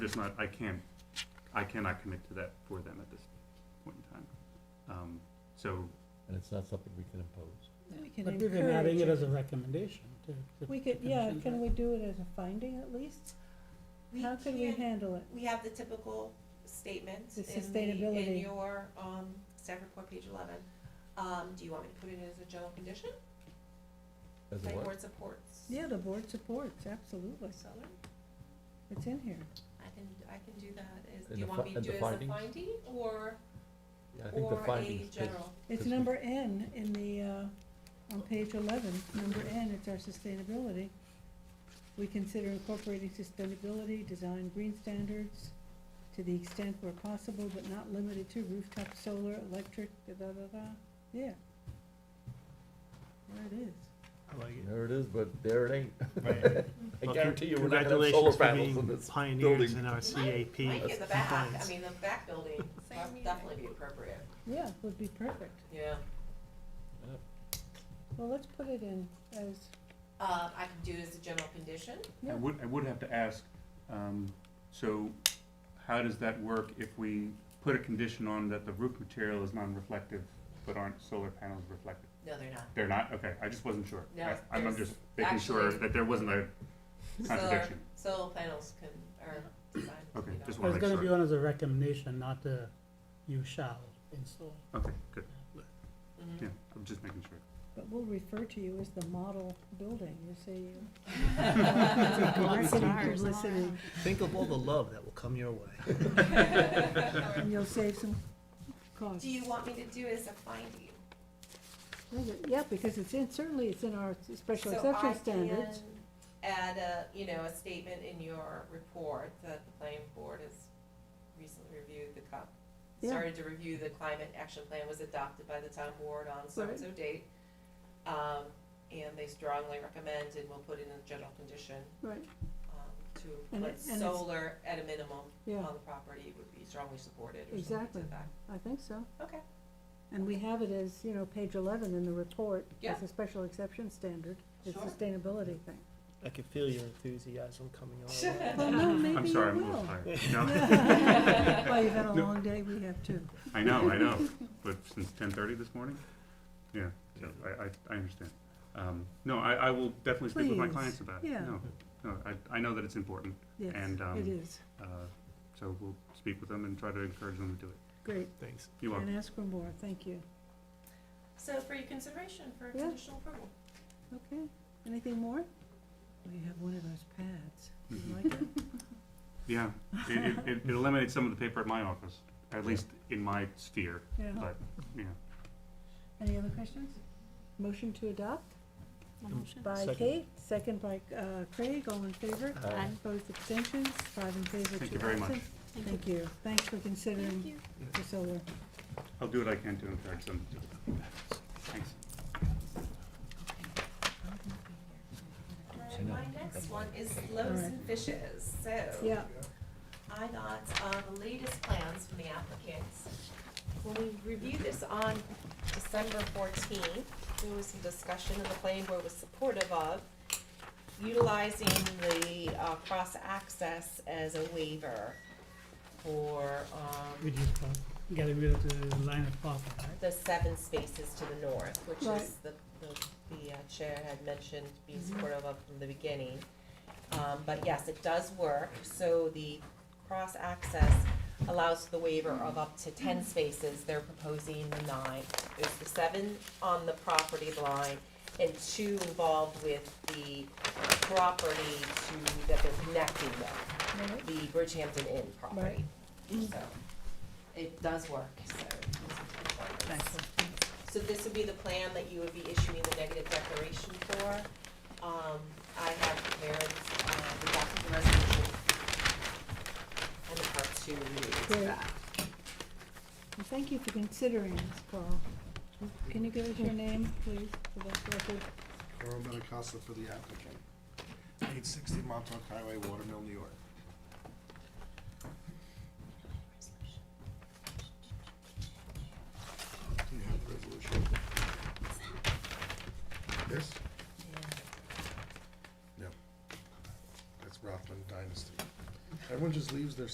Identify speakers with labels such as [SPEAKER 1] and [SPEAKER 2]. [SPEAKER 1] just not, I can't, I cannot commit to that for them at this point in time. Um, so,
[SPEAKER 2] and it's not something we can impose.
[SPEAKER 3] We can
[SPEAKER 4] But we've been adding
[SPEAKER 3] encourage
[SPEAKER 4] it
[SPEAKER 3] it.
[SPEAKER 4] as a recommendation to. to
[SPEAKER 3] We could,
[SPEAKER 4] the
[SPEAKER 3] yeah,
[SPEAKER 4] commission.
[SPEAKER 3] can we do it as a finding at least?
[SPEAKER 5] We
[SPEAKER 3] How could we
[SPEAKER 5] can't-
[SPEAKER 3] handle it?
[SPEAKER 5] We have the typical statements
[SPEAKER 3] The
[SPEAKER 5] in the, in
[SPEAKER 3] sustainability.
[SPEAKER 5] your, um, staff report, page eleven. Um, do you want me to put it as a general condition?
[SPEAKER 2] As a
[SPEAKER 5] My
[SPEAKER 2] what?
[SPEAKER 5] board supports.
[SPEAKER 3] Yeah, the board supports, absolutely.
[SPEAKER 5] So,
[SPEAKER 3] It's in here.
[SPEAKER 5] I can, I can do that as,
[SPEAKER 2] And
[SPEAKER 5] do you
[SPEAKER 2] the
[SPEAKER 5] want
[SPEAKER 2] fi-
[SPEAKER 5] me to
[SPEAKER 2] and
[SPEAKER 5] do
[SPEAKER 2] the
[SPEAKER 5] it as a
[SPEAKER 2] findings?
[SPEAKER 5] finding or,
[SPEAKER 2] Yeah, I think the
[SPEAKER 5] or a
[SPEAKER 2] findings page-
[SPEAKER 5] general?
[SPEAKER 3] It's
[SPEAKER 2] This one.
[SPEAKER 3] number N in the, uh, on page eleven, number N, it's our sustainability. We consider incorporating sustainability, design green standards to the extent where possible, but not limited to rooftop solar, electric, da-da-da-da, yeah. There it is.
[SPEAKER 4] I like it.
[SPEAKER 2] There it is, but there it ain't.
[SPEAKER 4] Right.
[SPEAKER 2] I
[SPEAKER 4] Well,
[SPEAKER 2] guarantee you, we're not gonna have solar
[SPEAKER 4] Congratulations for
[SPEAKER 2] panels in
[SPEAKER 4] being
[SPEAKER 2] this
[SPEAKER 4] pioneers
[SPEAKER 2] building.
[SPEAKER 4] in our
[SPEAKER 5] Mike-
[SPEAKER 4] CAP.
[SPEAKER 5] Mike in the back, I
[SPEAKER 4] compliance.
[SPEAKER 5] mean, the back building, would definitely be appropriate,
[SPEAKER 3] Yeah, would be perfect.
[SPEAKER 5] yeah.
[SPEAKER 3] Well, let's put it in as,
[SPEAKER 5] Uh, I can do it as a general condition,
[SPEAKER 1] I
[SPEAKER 3] Yeah.
[SPEAKER 1] would, I would have to ask, um, so how does that work if we put a condition on that the roof material is non-reflective, but aren't solar panels reflective?
[SPEAKER 5] no, they're not.
[SPEAKER 1] They're not, okay, I just wasn't sure.
[SPEAKER 5] No,
[SPEAKER 1] I- I'm
[SPEAKER 5] there's
[SPEAKER 1] just making sure
[SPEAKER 5] actually-
[SPEAKER 1] that there wasn't a
[SPEAKER 5] Solar,
[SPEAKER 1] contradiction.
[SPEAKER 5] solar panels can, are designed to
[SPEAKER 1] Okay,
[SPEAKER 5] be
[SPEAKER 1] just
[SPEAKER 4] But
[SPEAKER 1] wanna
[SPEAKER 4] It's
[SPEAKER 1] make
[SPEAKER 4] gonna
[SPEAKER 1] sure.
[SPEAKER 4] be on as a recommendation, not the you shall install.
[SPEAKER 1] Okay, good,
[SPEAKER 5] non- Mhm.
[SPEAKER 1] yeah, I'm just making sure.
[SPEAKER 3] but we'll refer to you as the model building, you see.
[SPEAKER 4] Lots of
[SPEAKER 5] Mm-hmm.
[SPEAKER 3] Marketing
[SPEAKER 4] ours all
[SPEAKER 3] publicity,
[SPEAKER 4] Think of all the love that will come your way.
[SPEAKER 3] And you'll save some costs.
[SPEAKER 5] Do you want me to do as a finding?
[SPEAKER 3] Well, but- Yeah, because it's in, certainly it's in our special
[SPEAKER 5] So I
[SPEAKER 3] exception standards.
[SPEAKER 5] can Add a, you know, a statement in your report that the planning board has recently reviewed the cup.
[SPEAKER 3] Yeah.
[SPEAKER 5] Started to review the climate action plan was adopted by the town board on so and so date. Um, and they strongly recommend and will put in a general condition,
[SPEAKER 3] Right.
[SPEAKER 5] um, to
[SPEAKER 3] And
[SPEAKER 5] put
[SPEAKER 3] it- and it's-
[SPEAKER 5] solar at a minimum
[SPEAKER 3] Yeah,
[SPEAKER 5] on the property would be strongly supported or something
[SPEAKER 3] Exactly.
[SPEAKER 5] to that.
[SPEAKER 3] I think so.
[SPEAKER 5] Okay.
[SPEAKER 3] And we have it as, you know, page eleven in the report,
[SPEAKER 5] Yeah.
[SPEAKER 3] as a special exception standard, it's
[SPEAKER 5] Sure.
[SPEAKER 3] sustainability thing.
[SPEAKER 6] I could feel your enthusiasm coming on.
[SPEAKER 3] Well, no, maybe
[SPEAKER 1] I'm
[SPEAKER 3] you
[SPEAKER 1] sorry, I'm a little
[SPEAKER 3] will.
[SPEAKER 1] tired. No,
[SPEAKER 3] Well, you've had a
[SPEAKER 1] No.
[SPEAKER 3] long day, we have too.
[SPEAKER 1] I know, I know, but since ten thirty this morning? Yeah, so I, I, I understand. Um, no, I, I will definitely speak with my
[SPEAKER 3] Please,
[SPEAKER 1] clients about it.
[SPEAKER 3] yeah.
[SPEAKER 1] No, no, I, I know that it's important,
[SPEAKER 3] Yes,
[SPEAKER 1] And, um,
[SPEAKER 3] it is.
[SPEAKER 1] uh, so we'll speak with them and try to encourage them to do it.
[SPEAKER 3] Great.
[SPEAKER 4] Thanks.
[SPEAKER 1] You are,
[SPEAKER 3] And ask for more, thank you.
[SPEAKER 5] So for your consideration for
[SPEAKER 3] Yeah.
[SPEAKER 5] conditional approval.
[SPEAKER 3] Okay, anything more? We have one of those pads. You
[SPEAKER 1] Mhm.
[SPEAKER 3] like it?
[SPEAKER 1] yeah, it, it- it, it eliminates some of the paper at my office, at least in my sphere,
[SPEAKER 3] Yeah.
[SPEAKER 1] but, yeah.
[SPEAKER 3] Any other questions? Motion to adopt
[SPEAKER 6] Motion.
[SPEAKER 3] by
[SPEAKER 6] Second.
[SPEAKER 3] Kate, second by uh, Craig, all in favor?
[SPEAKER 2] Aye. Aye.
[SPEAKER 3] Opposed, abstentions, five in favor, two absent.
[SPEAKER 1] Thank you very much.
[SPEAKER 3] Thank you. Thanks for considering the solar.
[SPEAKER 1] I'll do what I can to encourage them. to do it. Thanks.
[SPEAKER 5] Alright, my next one is loaves and fishes, so.
[SPEAKER 3] Yeah,
[SPEAKER 5] I got, uh, the latest plans from the applicants. When we reviewed this on December fourteenth, there was some discussion and the planning board was supportive of utilizing the, uh, cross-access as a waiver for, um,
[SPEAKER 4] We just got- gotta rid of the line of parking, right?
[SPEAKER 5] the seven spaces to the north, which
[SPEAKER 3] Right.
[SPEAKER 5] is the, the, the uh, chair had mentioned being supportive of from the beginning. Um, but yes, it does work, so the cross-access allows the waiver of up to ten spaces, they're proposing the nine. There's the seven on the property line and two involved with the property to, that they're connecting with
[SPEAKER 3] right,
[SPEAKER 5] the Bridgehampton Inn property. So, it does work, so. So this would be the plan that you would be issuing the negative declaration for. Um, I have prepared, uh, the document the resolution and the part two related to
[SPEAKER 3] Great.
[SPEAKER 5] that.
[SPEAKER 3] And thank you for considering this, Carl. Can you give us your name, please, for the record?
[SPEAKER 7] Carl Benincasa for the applicant. Eight sixty Montauk Highway, Watermill, New York. Do you have the resolution? Yes? No. That's Rothman Dynasty. Everyone just leaves their